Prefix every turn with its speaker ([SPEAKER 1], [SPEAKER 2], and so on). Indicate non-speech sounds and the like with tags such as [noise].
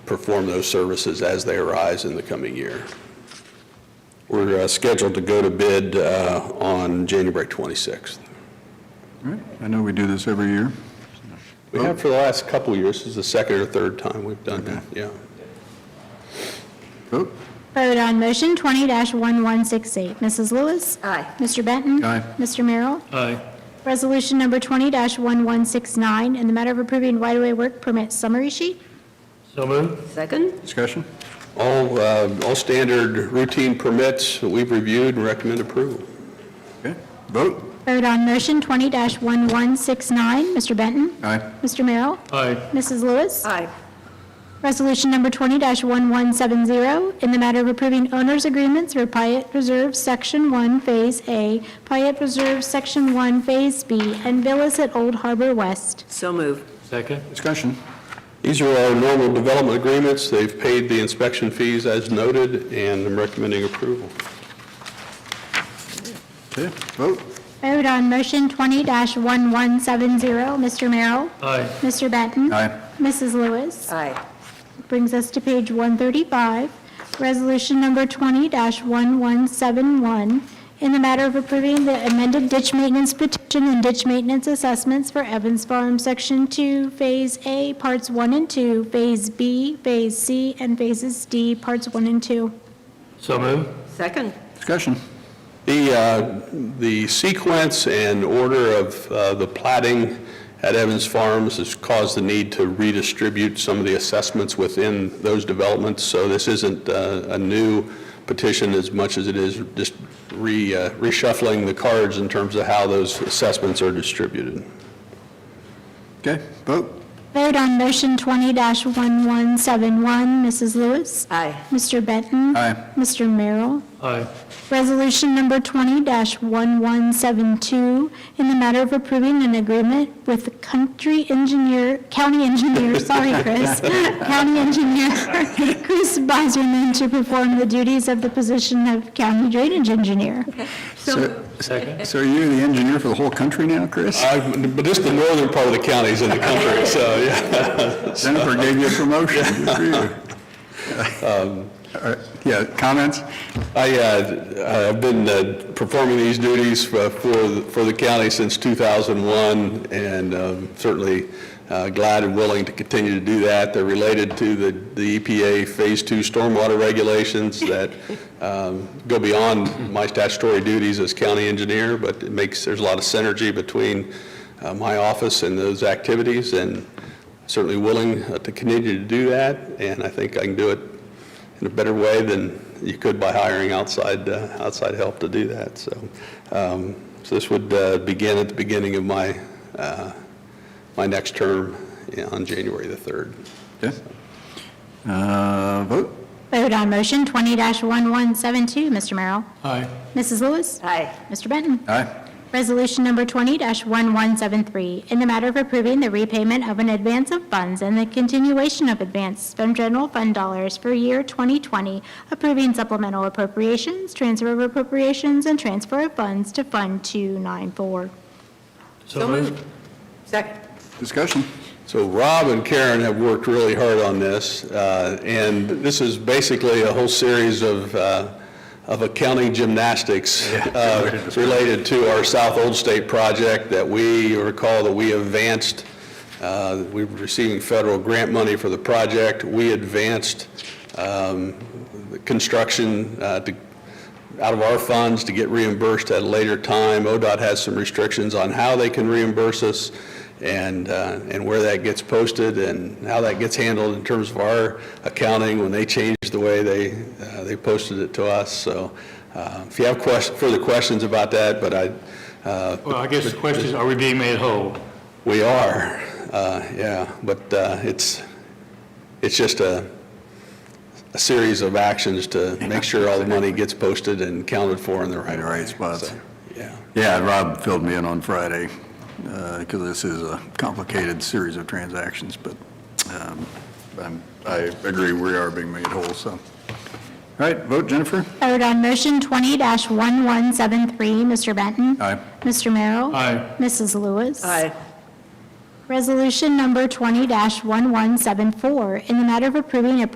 [SPEAKER 1] perform those services as they arise in the coming year. We're uh, scheduled to go to bid uh, on January 26th.
[SPEAKER 2] All right, I know we do this every year.
[SPEAKER 1] We have for the last couple of years, this is the second or third time we've done that, yeah.
[SPEAKER 2] Vote?
[SPEAKER 3] Vote on motion 20-1168. Mrs. Lewis.
[SPEAKER 4] Aye.
[SPEAKER 3] Mr. Benton.
[SPEAKER 2] Aye.
[SPEAKER 3] Mr. Merrill.
[SPEAKER 5] Aye.
[SPEAKER 3] Resolution number 20-1169, in the matter of approving right-of-way work permit summary sheet.
[SPEAKER 5] So moved.
[SPEAKER 4] Second?
[SPEAKER 2] Discussion?
[SPEAKER 1] All, uh, all standard routine permits that we've reviewed and recommend approval.
[SPEAKER 2] Okay, vote?
[SPEAKER 3] Vote on motion 20-1169. Mr. Benton.
[SPEAKER 2] Aye.
[SPEAKER 3] Mr. Merrill.
[SPEAKER 5] Aye.
[SPEAKER 3] Mrs. Lewis.
[SPEAKER 4] Aye.
[SPEAKER 3] Resolution number 20-1170, in the matter of approving owner's agreements for Pyatt Reserve Section 1, Phase A, Pyatt Reserve Section 1, Phase B, and Villas at Old Harbor West.
[SPEAKER 4] So move.
[SPEAKER 5] Second.
[SPEAKER 2] Discussion?
[SPEAKER 1] These are our normal development agreements. They've paid the inspection fees as noted, and I'm recommending approval.
[SPEAKER 2] Okay, vote?
[SPEAKER 3] Vote on motion 20-1170. Mr. Merrill?
[SPEAKER 5] Aye.
[SPEAKER 3] Mr. Benton?
[SPEAKER 2] Aye.
[SPEAKER 3] Mrs. Lewis?
[SPEAKER 4] Aye.
[SPEAKER 3] Brings us to page 135, resolution number 20-1171, in the matter of approving the amended ditch maintenance petition and ditch maintenance assessments for Evans Farm, Section 2, Phase A, Parts 1 and 2, Phase B, Phase C, and Phases D, Parts 1 and 2.
[SPEAKER 5] So moved.
[SPEAKER 4] Second?
[SPEAKER 2] Discussion?
[SPEAKER 1] The, uh, the sequence and order of uh, the plating at Evans Farms has caused the need to redistribute some of the assessments within those developments, so this isn't uh, a new petition as much as it is just re- uh, reshuffling the cards in terms of how those assessments are distributed.
[SPEAKER 2] Okay, vote?
[SPEAKER 3] Vote on motion 20-1171, Mrs. Lewis?
[SPEAKER 4] Aye.
[SPEAKER 3] Mr. Benton?
[SPEAKER 2] Aye.
[SPEAKER 3] Mr. Merrill?
[SPEAKER 5] Aye.
[SPEAKER 3] Resolution number 20-1172, in the matter of approving an agreement with the country engineer, county engineer, [laughs] sorry, Chris, county engineer, [laughs] Chris Beiserman, to perform the duties of the position of county drainage engineer.
[SPEAKER 2] So
[SPEAKER 5] Second.
[SPEAKER 2] so are you the engineer for the whole country now,
[SPEAKER 1] Uh,
[SPEAKER 2] Chris?
[SPEAKER 1] I've- But just the northern part of the county is in the country, so, yeah.
[SPEAKER 2] Jennifer gave you a promotion, good for you. All right, Yeah, comments?
[SPEAKER 1] I, uh, I've been uh, performing these duties for, for for the county since 2001, and um, certainly uh, glad and willing to continue to do that. They're related to the, the EPA Phase 2 stormwater regulations that um, go beyond my statutory duties as county engineer, but it makes, there's a lot of synergy between uh, my office and those activities, and certainly willing uh, to continue to do that, and I think I can do it in a better way than you could by hiring outside, uh, outside help to do that. So, um, so this would uh, begin at the beginning of my, uh, my next term yeah, on January the 3rd.
[SPEAKER 2] Okay. Uh, Vote?
[SPEAKER 3] Vote on motion 20-1172, Mr. Merrill.
[SPEAKER 5] Aye.
[SPEAKER 3] Mrs. Lewis?
[SPEAKER 4] Aye.
[SPEAKER 3] Mr. Benton?
[SPEAKER 2] Aye.
[SPEAKER 3] Resolution number 20-1173, in the matter of approving the repayment of an advance of funds and the continuation of advance from general fund dollars for year 2020, approving supplemental appropriations, transfer of appropriations, and transfer of funds to Fund 294.
[SPEAKER 5] So moved.
[SPEAKER 4] Second?
[SPEAKER 2] Discussion?
[SPEAKER 1] So Rob and Karen have worked really hard on this, uh, and this is basically a whole series of, uh, of accounting gymnastics uh, related to our South Old State project that we recall that we advanced, uh, we were receiving federal grant money for the project. We advanced um, the construction uh, to out of our funds to get reimbursed at a later time. ODOT has some restrictions on how they can reimburse us and, uh, and where that gets posted and how that gets handled in terms of our accounting when they changed the way they, uh, they posted it to us. So uh, if you have quest- further questions about that, but I, uh,
[SPEAKER 5] Well, I guess the question is, are we being made whole?
[SPEAKER 1] we are, uh, yeah, but uh, it's, it's just a, a series of actions to make sure all the money gets posted and counted for in the right
[SPEAKER 2] In
[SPEAKER 1] way.
[SPEAKER 2] the right spots.
[SPEAKER 1] So, Yeah.
[SPEAKER 2] Yeah, Rob filled me in on Friday, because this is a complicated series of transactions, but um, I'm- I agree, we are being made whole, so. All right, vote, Jennifer?
[SPEAKER 3] Vote on motion 20-1173, Mr. Benton.
[SPEAKER 2] Aye.
[SPEAKER 3] Mr. Merrill.
[SPEAKER 5] Aye.
[SPEAKER 3] Mrs. Lewis.
[SPEAKER 4] Aye.
[SPEAKER 3] Resolution number 20-1174, in the matter of approving a